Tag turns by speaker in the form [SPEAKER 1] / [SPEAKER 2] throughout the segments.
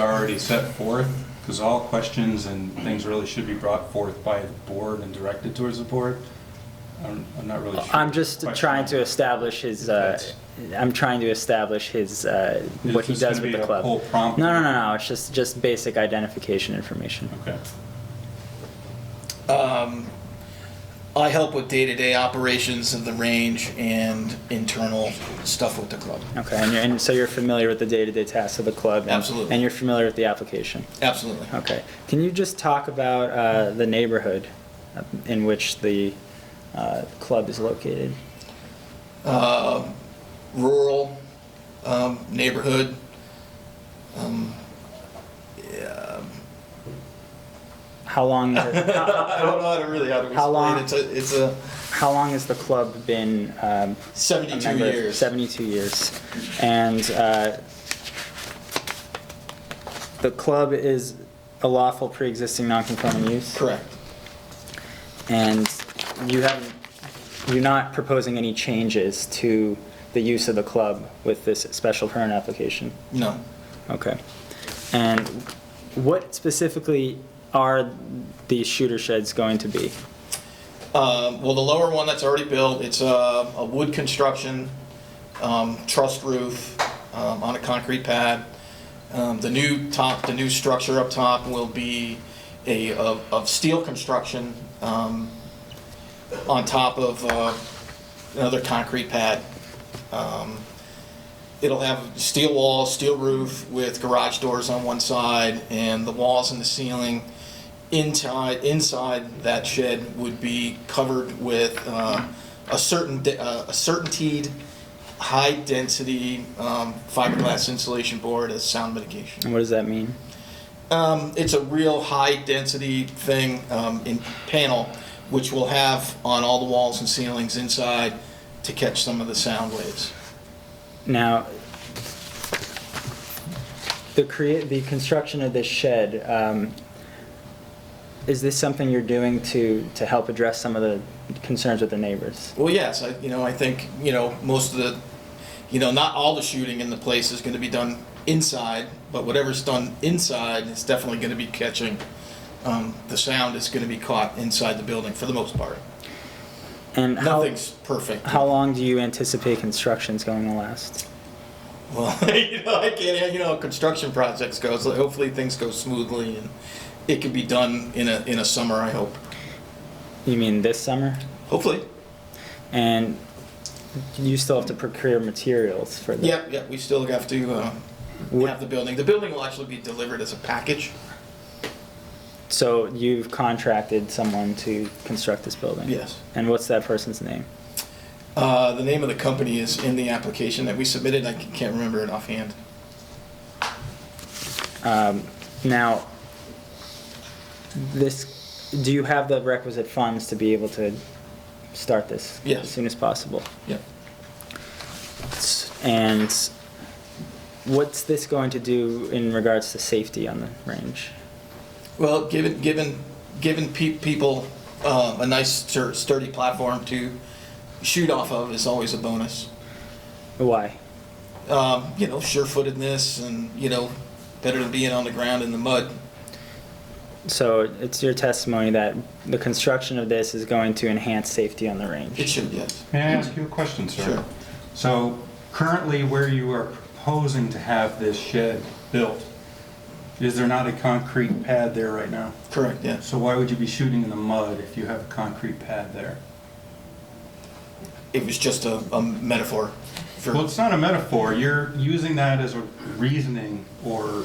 [SPEAKER 1] are already set forth, because all questions and things really should be brought forth by the board and directed towards the board. I'm, I'm not really sure.
[SPEAKER 2] I'm just trying to establish his, uh,
[SPEAKER 1] If
[SPEAKER 2] I'm trying to establish his, uh,
[SPEAKER 1] Is
[SPEAKER 2] what he
[SPEAKER 1] this
[SPEAKER 2] does
[SPEAKER 1] gonna
[SPEAKER 2] with
[SPEAKER 1] be
[SPEAKER 2] the
[SPEAKER 1] a
[SPEAKER 2] club.
[SPEAKER 1] whole prompt?
[SPEAKER 2] No, no, no, no, it's just, just basic identification information.
[SPEAKER 1] Okay.
[SPEAKER 3] Um, I help with day-to-day operations of the range and internal stuff with the club.
[SPEAKER 2] Okay, and you're, and so you're familiar with the day-to-day tasks of the club? and-
[SPEAKER 3] Absolutely.
[SPEAKER 2] And you're familiar with the application?
[SPEAKER 3] Absolutely.
[SPEAKER 2] Okay. Can you just talk about uh, the neighborhood uh, in which the uh, club is located?
[SPEAKER 3] Rural um, neighborhood. Um, yeah,
[SPEAKER 2] How long, how
[SPEAKER 3] I don't know how to really how to
[SPEAKER 2] How long?
[SPEAKER 3] explain it. It's a,
[SPEAKER 2] how long has the club been um,
[SPEAKER 3] it's a
[SPEAKER 2] a
[SPEAKER 3] 72
[SPEAKER 2] member?
[SPEAKER 3] years.
[SPEAKER 2] 72 years. And uh, the club is a lawful pre-existing non-conforming use?
[SPEAKER 3] Correct.
[SPEAKER 2] And you haven't, you're not proposing any changes to the use of the club with this special permit application?
[SPEAKER 3] No.
[SPEAKER 2] Okay. And what specifically are these shooter sheds going to be?
[SPEAKER 3] Um, well, the lower one that's already built, it's a, a wood construction, um, truss roof, um, on a concrete pad. Um, the new top, the new structure up top will be a, of, of steel construction, um, on top of, uh, another concrete pad. Um, It'll have steel walls, steel roof with garage doors on one side and the walls and the ceiling inside, inside that shed would be covered with uh, a certain, de- uh, a certainteed, high-density um, fiberglass insulation board as sound mitigation.
[SPEAKER 2] And what does that mean?
[SPEAKER 3] Um, it's a real high-density thing um, in panel, which we'll have on all the walls and ceilings inside to catch some of the sound waves.
[SPEAKER 2] Now, the create, the construction of this shed, um, is this something you're doing to, to help address some of the concerns with the neighbors?
[SPEAKER 3] Well, yes, I, you know, I think, you know, most of the, you know, not all the shooting in the place is gonna be done inside, but whatever's done inside is definitely gonna be catching, um, the sound is gonna be caught inside the building for the most part.
[SPEAKER 2] And how,
[SPEAKER 3] Nothing's perfect.
[SPEAKER 2] how long do you anticipate construction's going to last?
[SPEAKER 3] Well, you know, I can't, you know, how construction projects go, so hopefully things go smoothly and it can be done in a, in a summer, I hope.
[SPEAKER 2] You mean this summer?
[SPEAKER 3] Hopefully.
[SPEAKER 2] And you still have to procure materials for the
[SPEAKER 3] Yep, yep, we still have to, uh, have the building. The building will actually be delivered as a package.
[SPEAKER 2] So you've contracted someone to construct this building?
[SPEAKER 3] Yes.
[SPEAKER 2] And what's that person's name?
[SPEAKER 3] Uh, the name of the company is in the application that we submitted. I can't remember it offhand.
[SPEAKER 2] Um, Now, this, do you have the requisite funds to be able to start this?
[SPEAKER 3] Yes.
[SPEAKER 2] As soon as possible?
[SPEAKER 3] Yep.
[SPEAKER 2] S- And what's this going to do in regards to safety on the range?
[SPEAKER 3] Well, given, given, given pe- people uh, a nice stur- sturdy platform to shoot off of is always a bonus.
[SPEAKER 2] Why?
[SPEAKER 3] Um, you know, sure-footedness and, you know, better than being on the ground in the mud.
[SPEAKER 2] So it's your testimony that the construction of this is going to enhance safety on the range?
[SPEAKER 3] It should, yes.
[SPEAKER 1] May I ask you a question, sir?
[SPEAKER 3] Sure.
[SPEAKER 1] So currently where you are proposing to have this shed built, is there not a concrete pad there right now?
[SPEAKER 3] Correct, yes.
[SPEAKER 1] So why would you be shooting in the mud if you have a concrete pad there?
[SPEAKER 3] It was just a, a metaphor for,
[SPEAKER 1] Well, it's not a metaphor. You're using that as a reasoning or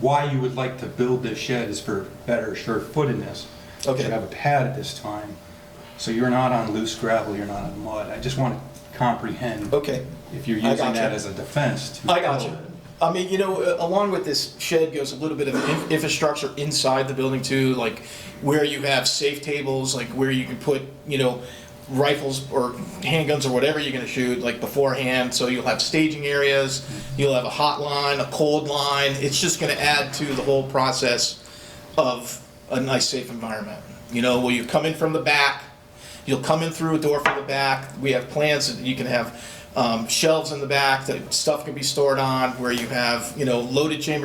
[SPEAKER 1] why you would like to build this shed is for better sure-footedness. You
[SPEAKER 3] Okay.
[SPEAKER 1] have a pad at this time, so you're not on loose gravel, you're not on mud. I just want to comprehend
[SPEAKER 3] okay.
[SPEAKER 1] if you're
[SPEAKER 3] I
[SPEAKER 1] using
[SPEAKER 3] gotcha.
[SPEAKER 1] that as a defense to.
[SPEAKER 3] I got you. I mean, you know, uh, along with this shed goes a little bit of in- infrastructure inside the building too, like where you have safe tables, like where you can put, you know, rifles or handguns or whatever you're gonna shoot, like beforehand, so you'll have staging areas, you'll have a hot line, a cold line, it's just gonna add to the whole process of a nice, safe environment. You know, where you come in from the back, You'll come in through a door from the back. We have plans that you can have um, shelves in the back that stuff can be stored on, where you have, you know, loaded chamber